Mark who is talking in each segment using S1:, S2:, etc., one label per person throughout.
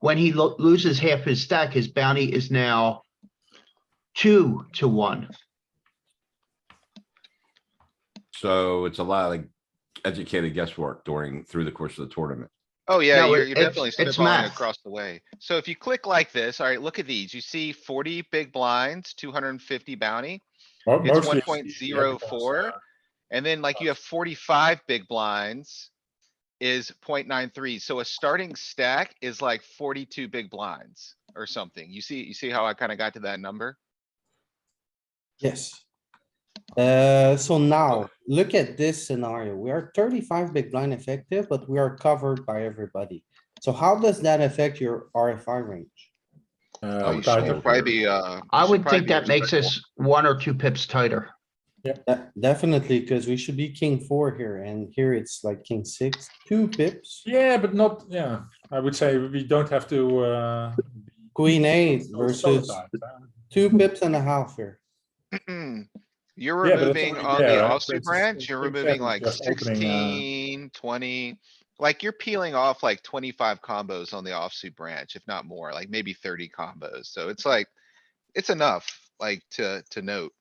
S1: When he lo- loses half his stack, his bounty is now two to one.
S2: So it's a lot of like educated guesswork during, through the course of the tournament.
S3: Oh, yeah,
S1: No,
S3: you're,
S1: it-
S3: you're
S1: it's-
S3: definitely
S1: it's
S3: spitballing
S1: math.
S3: across the way. So if you click like this, alright, look at these. You see forty big blinds, two hundred and fifty bounty.
S4: Mo-
S3: It's
S4: mostly
S3: 1.04.
S4: yeah, uh,
S3: And then like you have forty-five big blinds is 0.93. So a starting stack is like forty-two big blinds or something. You see, you see how I kinda got to that number?
S5: Yes. Uh, so now, look at this scenario. We are thirty-five big blind effective, but we are covered by everybody. So how does that affect your RFI range?
S4: uh,
S3: Oh, you
S4: tighter.
S3: should probably be, uh.
S1: I
S3: you should
S1: would
S3: probably
S1: think
S3: be
S1: that makes
S3: respectful.
S1: us one or two pips tighter.
S5: De- Definitely, because we should be king four here, and here it's like king six, two pips,
S4: Yeah, but not, yeah, I would say we don't have to, uh.
S5: queen eight
S4: be so
S5: versus
S4: tight, uh,
S5: two pips and a half here.
S3: Mm-mm. Hmm. You're
S4: Yeah, but it's
S3: removing
S4: already
S3: on the
S4: there, right? So
S3: offsuit
S4: it's-
S3: branch, you're
S4: it's
S3: removing
S4: exactly
S3: like
S4: just opening, uh,
S3: 16, 20, Like you're peeling off like twenty-five combos on the offsuit branch, if not more, like maybe thirty combos. So it's like, it's enough, like to, to note.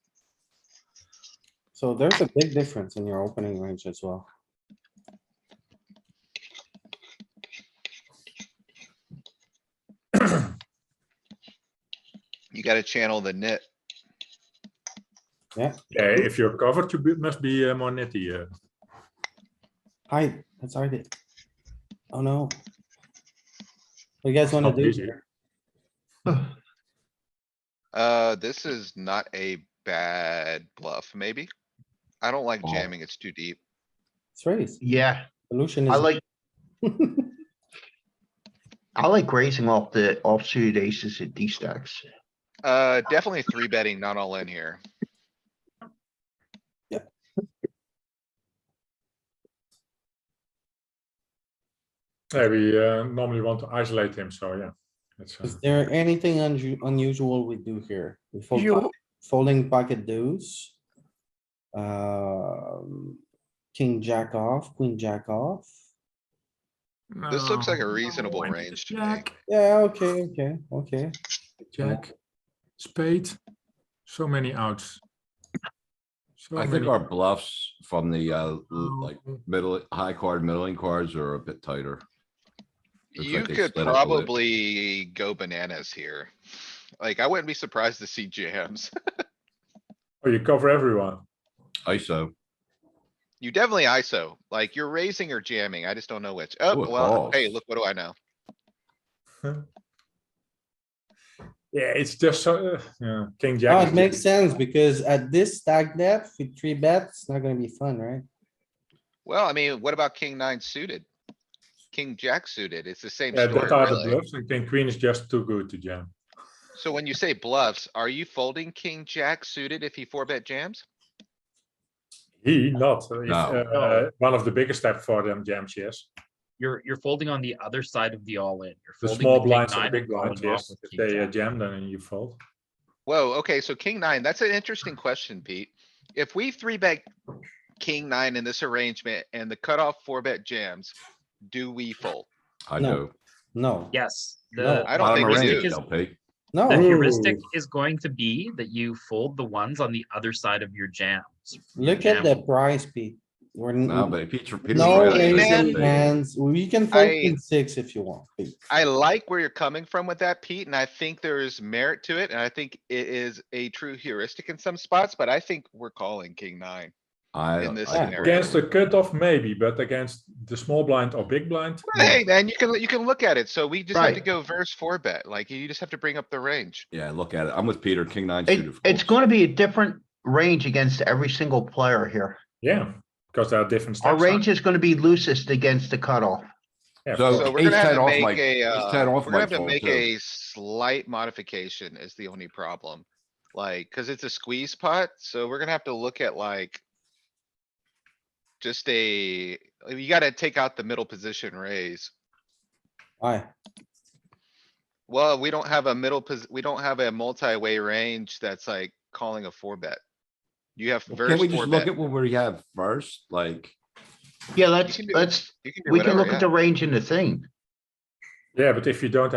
S5: So there's a big difference in your opening range as well.
S3: You gotta channel the knit.
S4: Yeah, if you're covered, you be- must be uh, more nitty, uh,
S5: Hi, that's our day. Oh, no. What you guys wanna
S4: not
S5: do?
S4: easy.
S5: here?
S3: Uh, this is not a bad bluff, maybe. I don't like
S2: Oh.
S3: jamming, it's too deep.
S5: It's raised.
S1: Yeah,
S5: Solution
S1: I
S5: is
S1: like. I like raising off the offsuit aces and D stacks.
S3: Uh, definitely three betting, not all in here.
S4: Yeah, we uh, normally want to isolate him, so yeah. That's, uh,
S5: Is there anything unu- unusual we do here? We fold
S6: You-
S5: po- Folding pocket deuce. Um, king jack off, queen jack off.
S3: This looks like a
S6: No,
S3: reasonable
S6: I need a
S3: range to me.
S6: Jack,
S5: Yeah, okay, okay, okay.
S4: jack, spade, so many outs. So
S2: I think
S4: many-
S2: our bluffs from the, uh, l- like
S4: Oh,
S2: middle, high card, middling cards are a bit tighter. Looks
S3: You
S2: like they
S3: could
S2: split up a little.
S3: probably go bananas here. Like, I wouldn't be surprised to see jams.
S4: Oh, you cover everyone.
S2: ISO,
S3: You definitely ISO, like you're raising or jamming. I just don't know which. Oh,
S2: Ooh, it
S3: well, hey,
S2: calls.
S3: look, what do I know?
S4: Yeah, it's just so, uh, yeah, king
S5: Oh,
S4: jack.
S5: it makes sense because at this stack depth, with three bets, it's not gonna be fun, right?
S3: Well, I mean, what about king nine suited? King jack suited, it's the same
S4: Yeah,
S3: story,
S4: that are the
S3: really.
S4: bluffs, and king queen is just too good to jam.
S3: So when you say bluffs, are you folding king jack suited if he four bet jams?
S4: He not, uh, he's,
S2: No.
S4: uh, one of the biggest step for them jams, yes.
S6: You're, you're folding on the other side of the all in. You're
S4: The
S6: folding
S4: small
S6: king
S4: blinds and
S6: nine
S4: the big
S6: calling
S4: blinds,
S6: off
S4: yes,
S6: with
S4: if
S6: king
S4: they uh,
S6: jack.
S4: jam, then you fold.
S3: Whoa, okay, so king nine, that's an interesting question, Pete. If we three bet king nine in this arrangement and the cutoff four bet jams, do we fold?
S2: I
S5: No.
S2: know.
S5: No,
S6: Yes,
S5: No.
S6: the.
S3: I don't
S2: Bottom of
S3: think we
S6: heuristic
S3: do.
S2: range,
S6: is-
S2: LP.
S5: no.
S6: The heuristic is going to be that you fold the ones on the other side of your jams.
S5: Look at the price, Pete. We're. n-
S2: No, but Peter. Peter's
S5: No,
S2: right,
S3: Really?
S2: it's
S5: raise
S3: Man.
S5: and
S2: LP.
S5: hands. We can fold
S3: I-
S5: king six if you want. Pete.
S3: I like where you're coming from with that, Pete, and I think there is merit to it, and I think it is a true heuristic in some spots, but I think we're calling king nine.
S2: I,
S3: in this
S2: I-
S3: scenario.
S4: Against the cutoff, maybe, but against the small blind or big blind. no.
S3: Hey, man, you can, you can look at it, so we just have to
S1: Right.
S3: go verse four bet, like, you just have to bring up the range.
S2: yeah, look at it. I'm with Peter, king nine
S1: It-
S2: suited. of
S1: it's
S2: course.
S1: gonna be a different range against every single player here.
S4: Yeah, because there are different steps.
S1: Our range is gonna be loosest against the cutoff.
S4: Yeah,
S2: So-
S3: So
S2: Oh,
S3: we're
S2: ace
S3: gonna have
S2: 10
S3: to
S2: off
S3: make
S2: might-
S3: a,
S2: ace
S3: uh,
S2: 10
S3: we're
S2: off
S3: gonna
S2: might
S3: have to
S2: fold
S3: make
S2: too.
S3: a slight modification is the only problem. Like, cuz it's a squeeze pot, so we're gonna have to look at like. Just a, you gotta take out the middle position raise.
S5: Why?
S3: Well, we don't have a middle pos, we don't have a multi-way range that's like calling a four bet. You have
S2: Can
S3: verse
S2: we
S3: four
S2: just look
S3: bet.
S2: at what we have first? Like,
S1: Yeah, let's,
S3: can do-
S1: let's,
S3: You can do
S1: we can
S3: whatever,
S1: look at
S3: yeah.
S1: the range in the thing.
S4: yeah, but if you don't